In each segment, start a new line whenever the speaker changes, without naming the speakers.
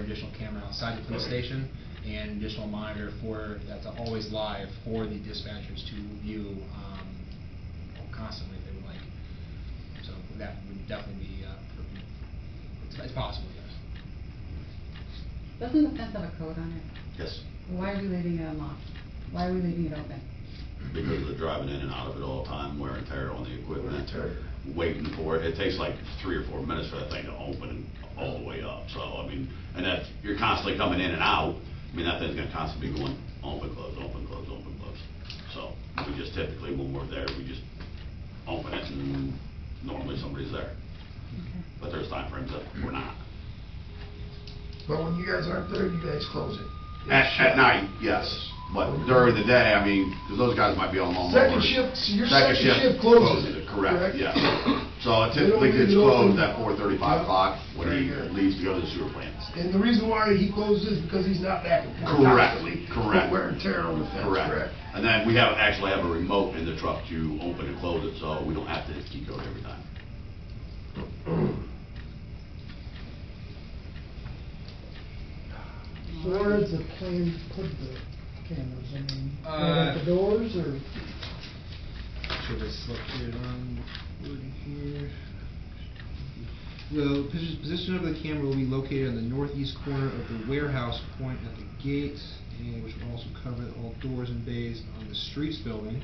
additional camera outside the police station and additional monitor for, that's always live for the dispatchers to view um, constantly if they would like. So that would definitely be, uh, for- it's- it's possible, yes.
Doesn't the fence have a code on it?
Yes,
Why are we leaving it unlocked? Why are we leaving it open?
because they're driving in and out of it all the time, wear and tear on the
Wear and
equipment.
tear.
Waiting for it, it takes like three or four minutes for that thing to open all the way up, so, I mean, and that, you're constantly coming in and out. I mean, that thing's gonna constantly be going open, close, open, close, open, close. So, we just typically, when we're there, we just open it and normally somebody's there.
Okay.
But there's timeframes that we're not.
But when you guys aren't there, you guys close it.
At, at night, yes, but during the day, I mean, because those guys might be on long
Second
hours.
shift, so your second shift closes it,
Correct,
correct?
yeah. So it
They don't
typically
leave
gets
it open.
closed at four thirty-five o'clock when
Very
he
good.
leaves to go to the sewer plant.
And the reason why he closes is because he's not back and forth.
Correctly,
Put
correct.
Wear and tear on the fence, correct?
Correct. And then we have, actually have a remote in the truck to open and close it, so we don't have to key code every time.
So where is the plan put the cameras, I mean, right
Uh,
at the doors, or
Should I slip it on wood here? The posi- position of the camera will be located on the northeast corner of the warehouse point at the gate, and which will also cover all doors and bays on the streets building.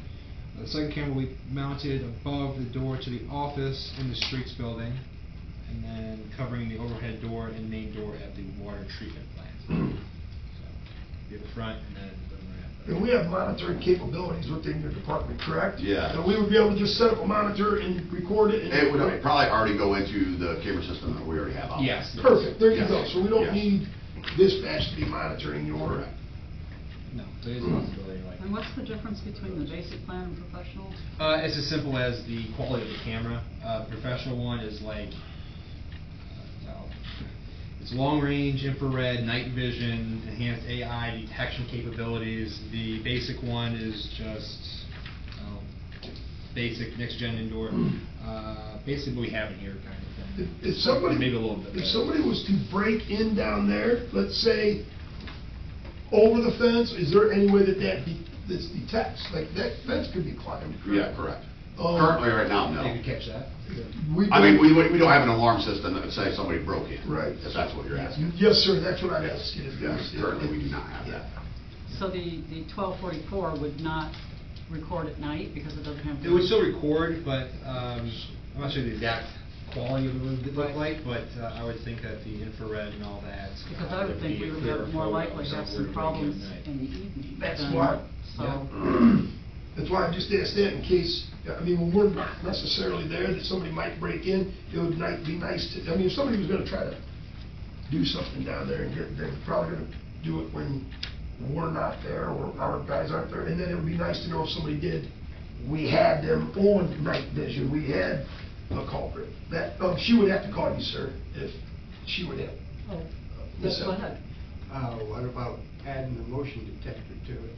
Uh, The second camera will be mounted above the door to the office in the streets building, and then covering the overhead door and main door at the water treatment plant. So, Be up front and then.
And we have monitoring capabilities within your department, correct?
Yeah.
So we would be able to just set up a monitor and record it and.
It would probably already go into the camera system that we already have out.
Yes.
Perfect, there you go.
Yes,
So we don't
yes.
need dispatch to be monitoring your.
No, there is a possibility like.
And what's the difference between the basic plan and professional?
Uh, it's as simple as the quality of the camera. Uh, the professional one is like, uh, well, it's long range, infrared, night vision, enhanced AI detection capabilities. The basic one is just um, basic next gen indoor. Uh, basically, what we have in here kind of
Hmm. If
thing.
if somebody,
maybe a little bit.
if
better.
somebody was to break in down there, let's say, over the fence, is there any way that that, de- that's detached? Like, that fence could be climbed,
Yeah,
correct?
correct.
Um,
Currently, right now, no.
They could catch that.
We
I mean, we, we don't have an alarm system that would say somebody broke in.
Right.
If that's what you're asking.
Yes, sir, that's what I'm asking. is-
Yeah, Currently, we do not have that.
So the, the twelve forty-four would not record at night because it doesn't have.
It would still record, but um, I'm not sure the exact quality of it would look like, but uh, I would think that the infrared and all that. uh,
Because I would think
be
we
a
would
clearer
have more
photo
likely
of
have
something
some
we're doing
problems
at
in
night.
the evening.
That's
than-
why-
So,
That's why I just asked that in case, I mean, when we're not necessarily there, that somebody might break in, it would ni- be nice to, I mean, if somebody was gonna try to do something down there and get, they're probably gonna do it when we're not there or our guys aren't there, and then it would be nice to know if somebody did, we had them on night vision, we had a culprit. That, um, she would have to call you, sir, if she would have.
oh,
Yes,
yes,
sir.
go ahead.
Uh, what about adding a motion detector to it?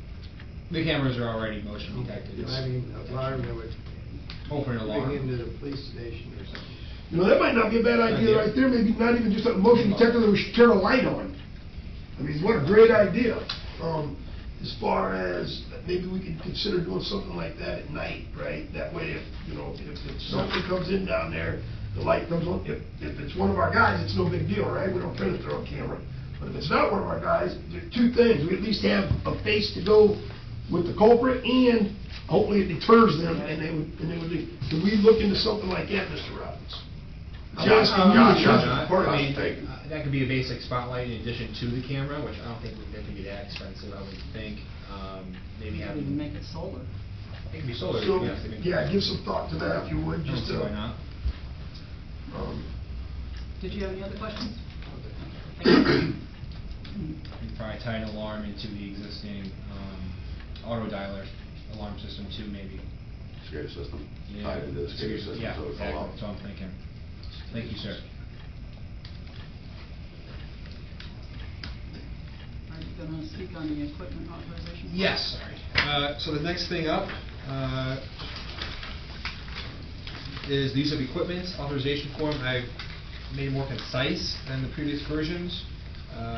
The cameras are already motion detected.
I mean, alarm that would bring
Open
into
alarm.
the police station or something.
You know, that might not be a bad idea right there, maybe not even just a motion detector that we should turn a light on. I mean, what a great idea. Um, as far as, maybe we could consider doing something like that at night, right? That way, if, you know, if, if something comes in down there, the light comes on, if, if it's one of our guys, it's no big deal, right? We don't turn it through on camera. But if it's not one of our guys, there are two things, we at least have a face to go with the culprit, and hopefully it deters them, and they would, and they would leave. Do we look into something like that, Mr. Robbins?
Josh,
Um,
Josh,
Josh,
Josh,
I
Josh,
mean,
take-
uh, That could be a basic spotlight in addition to the camera, which I don't think would that could be that expensive, I would think. Um, Maybe
You can
having,
make it solar.
it could be solar.
So,
yes, I mean-
yeah, give some thought to that if
I
you would,
don't see
just
Why
to.
not?
um,
Did you have any other questions?
You probably tie an alarm into the existing um, auto dialer alarm system too, maybe.
Security system.
Yeah.
Tied into the security system,
Yeah,
so it's all
exactly.
out.
That's all I'm thinking. Thank you, sir.
Are you gonna speak on the equipment authorization?
Yes, sorry. Uh, So the next thing up uh, is the use of equipment authorization form. I made it more concise than the previous versions. Uh,